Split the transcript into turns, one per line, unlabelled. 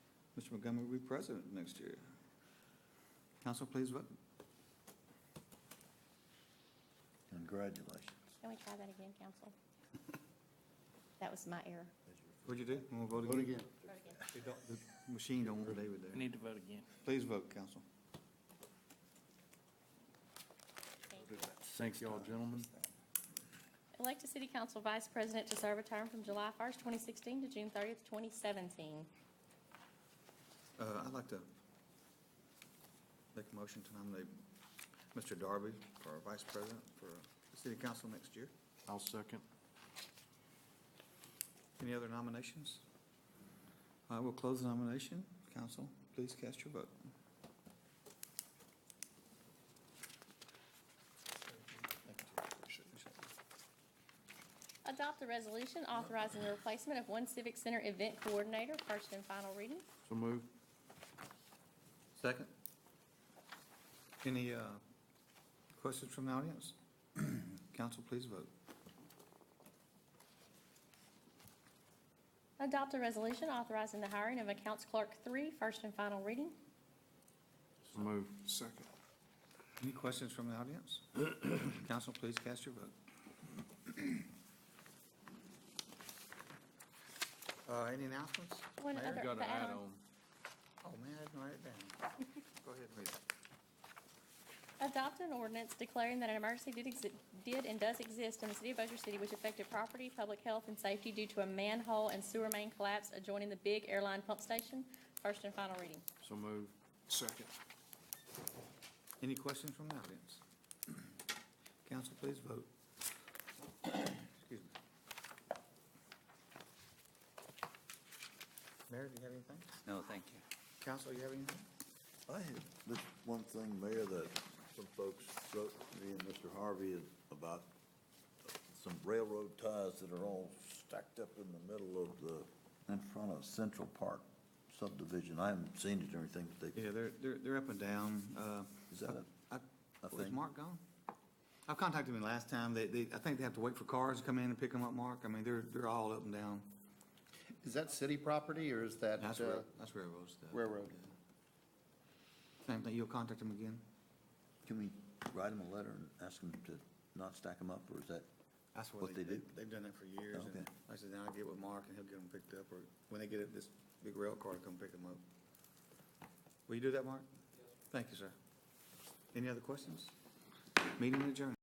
Mr. Montgomery will be president next year. Council, please vote.
Congratulations.
Can we try that again, council? That was my error.
What'd you do? Want to vote
Vote
again?
again.
They don't- The machine don't want David
We
there.
need to vote again.
Please vote, council.
Thank you all, gentlemen.
Elect a city council vice president to serve a term from July 1st, 2016 to June 30th, 2017.
Uh, I'd like to make a motion to nominate Mr. Darby for vice president for the city council next year.
I'll second.
Any other nominations? I will close the nomination. Council, please cast your vote.
Adopt a resolution authorizing the replacement of one civic center event coordinator, first and final reading.
So move.
Second. Any uh, questions from the audience? Council, please vote.
Adopt a resolution authorizing the hiring of accounts clerk three, first and final reading.
So move.
Second.
Any questions from the audience? Council, please cast your vote. Uh, Any announcements?
One
Mayor?
other-
Got an
The add-on.
add-on.
Oh, man, I didn't write it down. Go ahead and read it.
Adopt an ordinance declaring that an emergency did exi- did and does exist in the city of Bossier City which affected property, public health, and safety due to a manhole and sewer main collapse adjoining the big airline pump station. First and final reading.
So move.
Second.
Any questions from the audience? Council, please vote. Excuse me. Mayor, do you have anything?
No, thank you.
Council, you have anything?
I have this one thing, Mayor, that some folks wrote to me and Mr. Harvey is about some railroad ties that are all stacked up in the middle of the, in front of Central Park subdivision. I haven't seen it or anything, but they,
Yeah, they're, they're, they're up and down. Uh,
is that a?
I,
I
was
think-
Mark gone? I've contacted him last time. They, they, I think they have to wait for cars to come in and pick them up, Mark. I mean, they're, they're all up and down.
Is that city property or is that?
That's
uh,
rail, that's railroad stuff.
railroad.
Yeah. Same thing, you'll contact him again?
Can we write them a letter and ask them to not stack them up, or is that?
That's
What they do?
They've done that for years. and
Okay.
I said, now I'll get with Mark and he'll get them picked up, or when they get it, this big rail car to come pick them up. Will you do that, Mark? Thank you, sir. Any other questions? Meeting adjourned.